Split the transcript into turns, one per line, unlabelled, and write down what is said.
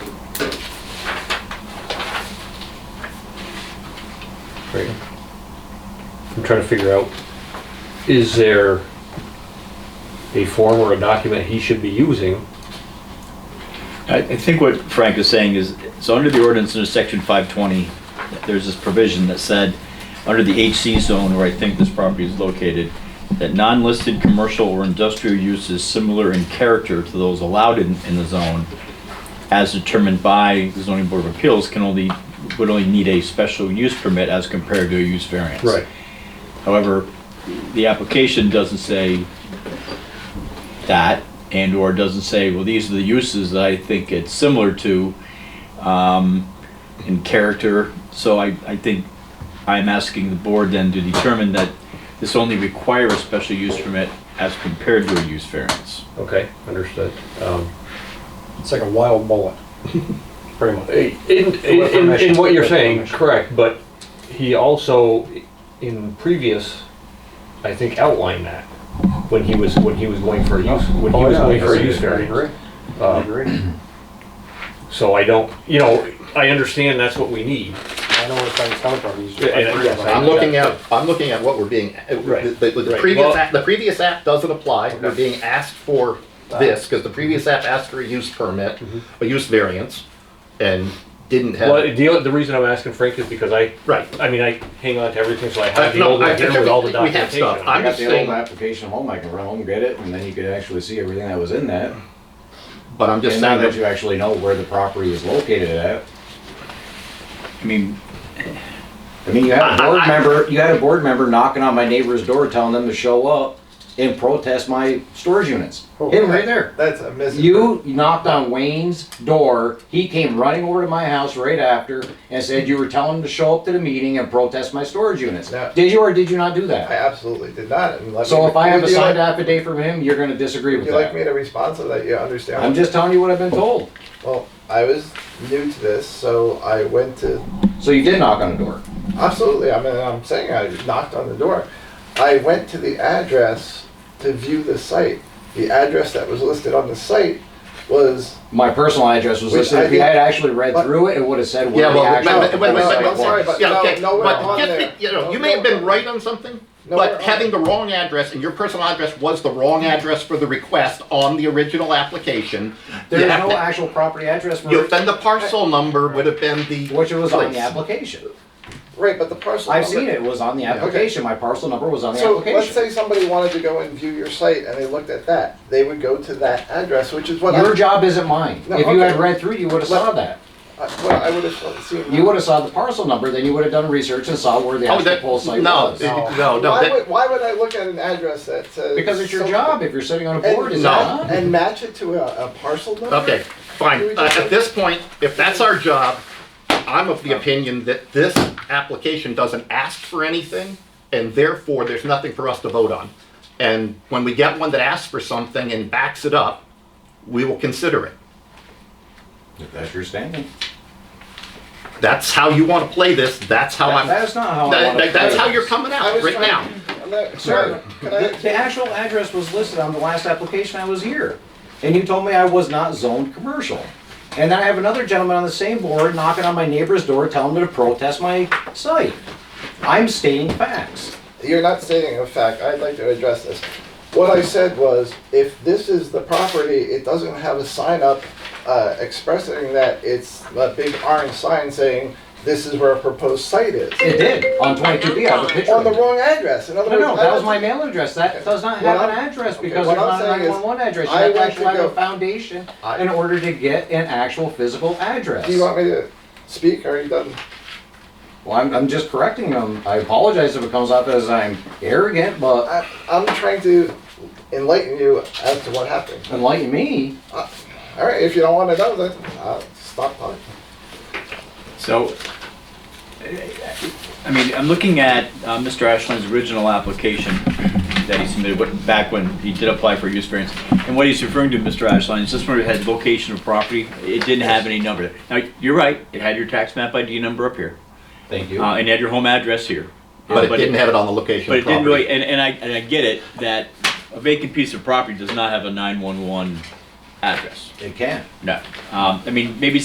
Right. I'm trying to figure out, is there a form or a document he should be using?
I, I think what Frank is saying is, so under the ordinance in section five twenty, there's this provision that said, under the HC zone where I think this property is located, that non-listed commercial or industrial uses similar in character to those allowed in, in the zone, as determined by the zoning board of appeals, can only, would only need a special use permit as compared to a use variance. However, the application doesn't say that, and/or doesn't say, well, these are the uses that I think it's similar to um, in character. So I, I think I'm asking the board then to determine that this only requires a special use permit as compared to a use variance.
Okay, understood. Um,
It's like a wild bullet, pretty much.
In, in, in- in what you're saying,
Permission.
correct, but he also, in previous, I think outlined that when he was, when he was going for a use, when
Oh,
he was going for a use variance.
I agree.
Um, So I don't, you know, I understand that's what we need.
I know where Frank's coming from. He's
Yeah, and-
I
yes,
agree.
I'm looking at, I'm looking at what we're being, uh,
Right,
the, the- the
right.
previous
Well-
act, the previous act doesn't apply, we're being asked for this, because the previous app asked for a use permit, a use variance, and didn't
Mm-hmm. Well,
have,
the, the reason I'm asking Frank is because I,
right.
I mean, I hang on to everything, so I
Uh,
have the
No,
old
I-
one here with all the
we have
documentation.
stuff, I'm
I got
just
the old
saying,
application home, I can run home, get it, and then you could actually see everything that was in that.
but I'm just
And now
saying,
that
that-
you actually know where the property is located at,
I mean,
I mean, you had a
I- I-
board member, you had a board member knocking on my neighbor's door telling them to show up and protest my storage units.
Oh,
Him right there.
That's a miss.
You knocked on Wayne's door, he came running over to my house right after and said you were telling him to show up to the meeting and protest my storage units.
Yeah.
Did you or did you not do
I
that?
absolutely did not. And let
So
me-
if I have a
would you
signed
like-
affidavit from him, you're gonna disagree with
Would you like me
that.
to respond so that you understand?
I'm just telling you what I've been told.
Well, I was new to this, so I went to.
So you did knock on the door.
Absolutely. I mean, I'm saying I knocked on the door. I went to the address to view the site. The address that was listed on the site was.
My personal address was
Which
listed.
I
If you
think-
had actually read
but-
through it, it would have said where
yeah,
the
well, wait, wait,
actual.
wait, wait,
No,
wait,
I'm sorry,
wait,
but
yeah,
no,
okay,
nowhere
but
on
just,
there.
be- you know, you
No,
may have been
nowhere.
right on something,
Nowhere
but
on
having the
there.
wrong address, and your personal address was the wrong address for the request on the original application.
There
you
is
have
no
to-
actual property address
you-
for
Then the parcel number would have been the.
which it was on the
place.
application.
Right, but the parcel.
I've
number-
seen it. It was on the application. My parcel number was on the
So let's
application.
say somebody wanted to go and view your site and they looked at that. They would go to that address, which is what
Your
I,
job isn't mine.
No,
If you had
okay.
read through, you would have
Let-
saw that.
I- what I would have seen.
You would have saw the parcel number, then you would have done research and saw where the
Oh,
actual
that,
pole site
no,
was.
it- no, no,
Why
that,
would, why would I look at an address that says?
Because it's your
so-
job. If you're sitting on a
And,
board, is it
No.
not?
and, and match it to a, a parcel number?
okay, fine. Uh, At this point, if that's our job, I'm of the opinion that this application doesn't ask for anything, and therefore, there's nothing for us to vote on. And when we get one that asks for something and backs it up, we will consider it.
If that's your standing.
That's how you want to play this, that's how I'm,
That's not how I
That-
want to.
that- that's how you're coming
I
out
was
right now.
trying- I'm not-
Sir,
Can
the,
I,
the actual address was listed on the last application I was here. And you told me I was not zoned commercial. And then I have another gentleman on the same board knocking on my neighbor's door telling him to protest my site. I'm stating facts.
you're not stating a fact, I'd like to address this. What I said was, if this is the property, it doesn't have a sign up, uh, expressing that it's a big orange sign saying, this is where a proposed site is.
It did, on twenty-two B, I have a picture
On
of
the
it.
wrong address, in other
No,
words.
no,
I
that was
don't-
my mail address, that does not have
What
an
I'm-
address
okay,
because
what
there's
I'm
not a
saying is,
nine-one-one address. You
I
have to
went
actually
to
have a
go-
foundation
I-
in order to get an actual physical address.
Do you want me to speak, or are you done?
Well, I'm, I'm just correcting them. I apologize if it comes off as I'm arrogant, but
I, I'm trying to enlighten you as to what happened.
enlighten me.
All right, if you don't want to know, then uh, stop talking.
So, I mean, I'm looking at uh, Mr. Ashland's original application that he submitted what- back when he did apply for use variance. And what he's referring to, Mr. Ashland, is this one had location of property. It didn't have any number. Now, you're right, it had your tax map ID number up here.
Thank you.
Uh, and you had your home address here.
but it didn't have it on the location
But
of
it didn't
property.
really, and, and I, and I get it, that a vacant piece of property does not have a nine-one-one address.
It can.
No. Um, I mean, maybe